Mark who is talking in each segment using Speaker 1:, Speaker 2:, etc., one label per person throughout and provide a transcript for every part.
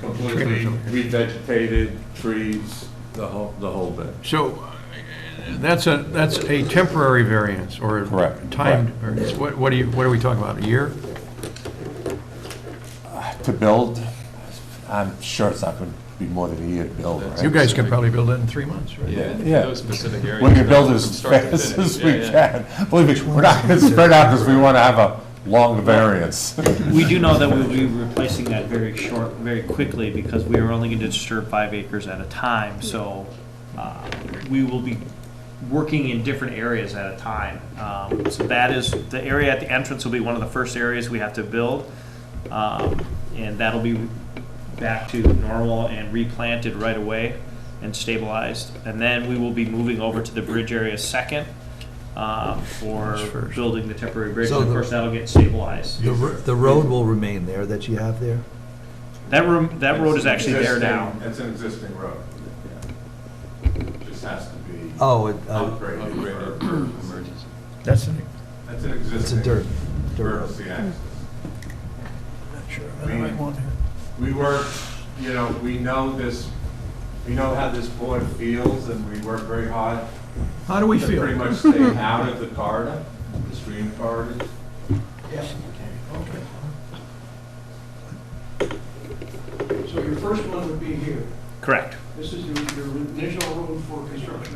Speaker 1: completely revegetated, trees, the whole, the whole bit.
Speaker 2: So uh, that's a, that's a temporary variance or
Speaker 3: Correct,
Speaker 2: timed
Speaker 3: correct.
Speaker 2: variance. What, what are you, what are we talking about, a year?
Speaker 3: To build, I'm sure it's not going to be more than a year to build, right?
Speaker 2: You guys can probably build that in three monmonths, right?
Speaker 4: Yeah, in
Speaker 3: Yeah.
Speaker 4: those specific areas.
Speaker 3: We can build
Speaker 4: not
Speaker 3: as
Speaker 4: constructed
Speaker 3: fast
Speaker 4: in it.
Speaker 3: as
Speaker 4: Yeah,
Speaker 3: we
Speaker 4: yeah.
Speaker 3: can. Believe me, we're not going to spread out because we want to have a long variance.
Speaker 5: We do know that we'll be replacing that very short, very quickly, because we are only going to disturb five acres at a time, so uh, we will be working in different areas at a time. Um, So that is, the area at the entrance will be one of the first areas we have to build, um, and that'll be back to normal and replanted right away and stabilized. And then we will be moving over to the bridge area second um, for
Speaker 6: first.
Speaker 5: building the temporary bridge,
Speaker 6: So
Speaker 5: and of
Speaker 6: the-
Speaker 5: course, that'll get stabilized.
Speaker 6: The, ro- the road will remain there that you have there?
Speaker 5: That room, that road is actually there
Speaker 1: Existing-
Speaker 5: now.
Speaker 1: It's an existing road. Just has to be
Speaker 6: Oh, it, uh,
Speaker 1: upgraded. for-
Speaker 2: That's an,
Speaker 1: That's an
Speaker 6: it's a
Speaker 1: existing.
Speaker 6: dirt, dirt road.
Speaker 1: emergency access.
Speaker 2: sure,
Speaker 1: I might want We work, you know, we know this, we know how this board feels and we work very hard
Speaker 2: How do we
Speaker 1: to pretty
Speaker 2: feel?
Speaker 1: much stay out of the corridor, the stream corridors.
Speaker 7: So your first one would be here.
Speaker 5: Correct.
Speaker 7: This is your, your initial room for construction.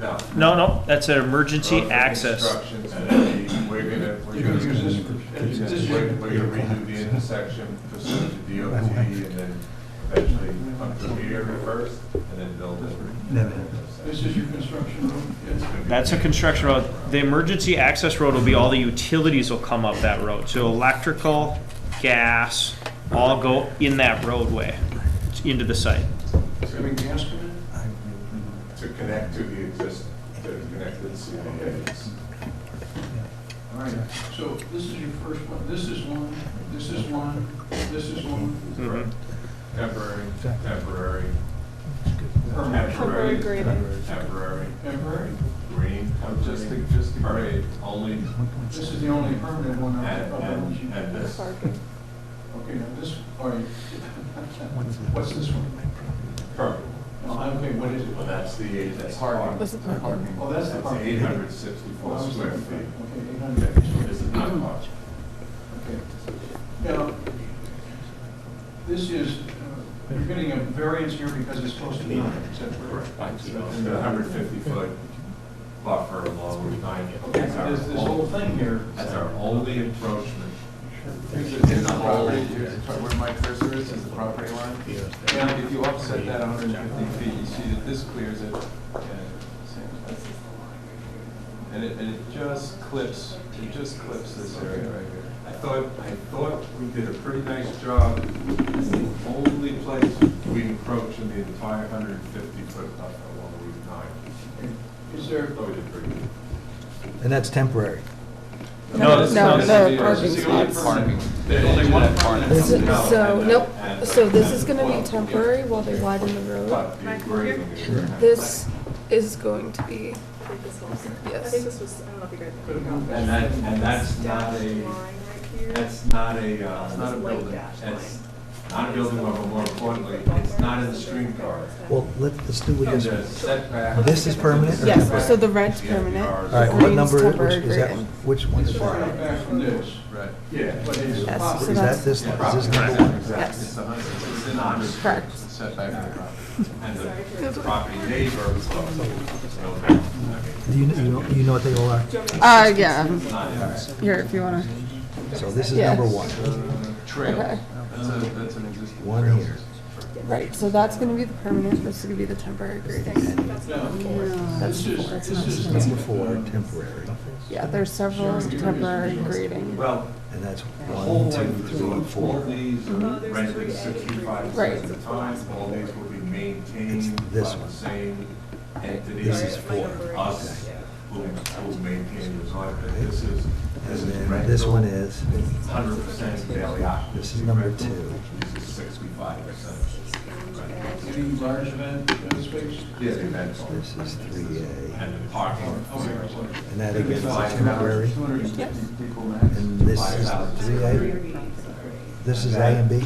Speaker 1: No.
Speaker 5: No, no, that's an emergency
Speaker 1: Road
Speaker 5: access.
Speaker 1: Construction's gonna be, we're gonna, we're
Speaker 7: You're gonna
Speaker 1: gonna,
Speaker 7: use this
Speaker 1: we're
Speaker 7: for.
Speaker 1: we're gonna redo the intersection, pursue the DOT and then eventually come to here first and then build it.
Speaker 7: This is your construction room.
Speaker 1: It's gonna be-
Speaker 5: That's a construction road. The emergency access road will be all the utilities will come up that road. So electrical, gas, all go in that roadway into the site.
Speaker 7: It's gonna be gas coming in.
Speaker 1: to connect to the existing, to connect to the CIA's.
Speaker 7: All right, so this is your first one. This is one, this is one, this is one.
Speaker 5: Mhm.
Speaker 1: Temporary, temporary,
Speaker 8: Temporary
Speaker 1: temporary,
Speaker 8: grading.
Speaker 1: temporary,
Speaker 7: Temporary.
Speaker 1: green,
Speaker 7: Oh,
Speaker 1: just, just permanent, only,
Speaker 7: This is the only permanent one
Speaker 1: and,
Speaker 7: out of the ones you
Speaker 1: and, and this.
Speaker 8: Parking.
Speaker 7: Okay, now this, all right. What's this one?
Speaker 1: Purple.
Speaker 7: Oh, I don't think, what is it?
Speaker 1: Well, that's the, that's hard.
Speaker 8: This is parking.
Speaker 7: Oh, that's the
Speaker 1: That's
Speaker 7: part.
Speaker 1: eight hundred sixty-four square feet.
Speaker 7: Okay, eight hundred.
Speaker 1: This is not much.
Speaker 7: Okay. Now, this is, uh, you're getting a variance here because it's close to nine, is that correct?
Speaker 1: And the hundred fifty foot buffer along Route nine.
Speaker 7: Okay, so This, this whole thing here,
Speaker 1: That's our only encroachment.
Speaker 9: In the whole, where my cursor is, is the property line.
Speaker 7: Yeah.
Speaker 9: And if you offset that 150 feet, you see that this clears it. and- And it, and it just clips, it just clips this area right here.
Speaker 1: I thought, I thought we did a pretty nice job. It's the only place we encroach in the entire hundred and fifty foot buffer along Route nine.
Speaker 7: is there,
Speaker 1: I thought oh, we did pretty good.
Speaker 6: and that's temporary.
Speaker 5: No, this is
Speaker 8: No,
Speaker 5: not-
Speaker 9: this
Speaker 8: the
Speaker 9: is the-
Speaker 8: parking
Speaker 9: this is the
Speaker 8: spots.
Speaker 9: Parking.
Speaker 1: There's only one part.
Speaker 8: This is-
Speaker 1: No,
Speaker 8: So,
Speaker 1: and
Speaker 8: nope,
Speaker 1: the- and the-
Speaker 8: so this is
Speaker 1: and the-
Speaker 8: gonna be temporary while they widen the road.
Speaker 1: But the grading is-
Speaker 8: This is going to be,
Speaker 10: I think this was, I don't know if you guys.
Speaker 1: And that, and that's not
Speaker 10: Line
Speaker 1: a,
Speaker 10: right here.
Speaker 1: that's not a, uh, it's not a
Speaker 10: This light
Speaker 1: building.
Speaker 10: dashed
Speaker 1: That's not a building, but more importantly, it's not in the stream corridor.
Speaker 6: Well, let, let's do what
Speaker 1: There's
Speaker 6: you,
Speaker 1: a setback.
Speaker 6: this is permanent? or
Speaker 8: yes,
Speaker 6: temporary?
Speaker 8: so the red's permanent.
Speaker 6: All right, what
Speaker 8: Green's
Speaker 6: number
Speaker 8: temporary
Speaker 6: is- is that,
Speaker 8: grading.
Speaker 6: which one
Speaker 7: it's
Speaker 6: is
Speaker 7: far enough
Speaker 6: that?
Speaker 7: back from this,
Speaker 9: Right.
Speaker 1: Yeah.
Speaker 7: but it's
Speaker 8: Yes,
Speaker 7: possible.
Speaker 8: so
Speaker 6: Is that
Speaker 8: that's,
Speaker 6: this, is this number one?
Speaker 9: It's
Speaker 8: yes,
Speaker 9: 100, it's in 100 feet.
Speaker 8: Correct.
Speaker 9: It's Set back from the property.
Speaker 1: And the property neighbor.
Speaker 6: Do you, you know, you know what they all are?
Speaker 8: uh, yeah, um, here, if you wanna,
Speaker 6: So this is
Speaker 8: Yeah.
Speaker 6: number one.
Speaker 9: Trails,
Speaker 8: okay.
Speaker 9: that's a, that's an existing.
Speaker 6: One
Speaker 9: trail.
Speaker 6: here.
Speaker 8: Right, so that's gonna be the permanent, this is gonna be the temporary grading.
Speaker 7: This is, this is.
Speaker 6: Number four, temporary.
Speaker 8: Yeah, there's several temporary grading.
Speaker 1: Well,
Speaker 6: And that's
Speaker 1: the
Speaker 6: one,
Speaker 1: whole
Speaker 6: two,
Speaker 1: thing is
Speaker 6: three,
Speaker 1: doing all
Speaker 6: four.
Speaker 1: these are rented sixty-five
Speaker 8: Mm-hmm. Right.
Speaker 1: percent of the time, all these will be maintained
Speaker 6: It's
Speaker 1: by
Speaker 6: this
Speaker 1: the
Speaker 6: one.
Speaker 1: same entity.
Speaker 6: This is four.
Speaker 1: Us, who, who maintain the design, but this is, this
Speaker 6: And
Speaker 1: is
Speaker 6: then
Speaker 1: rental.
Speaker 6: this one is,
Speaker 1: Hundred percent daily occupancy.
Speaker 6: This is number
Speaker 1: rental.
Speaker 6: two.
Speaker 1: This is sixty-five percent.
Speaker 7: Any large event, uh, space?
Speaker 1: Yeah, the rental.
Speaker 6: this is three A.
Speaker 1: And the parking.
Speaker 7: Oh,
Speaker 6: And that again is a temporary.
Speaker 9: 250 people max.
Speaker 6: And this is three A. This is A and B.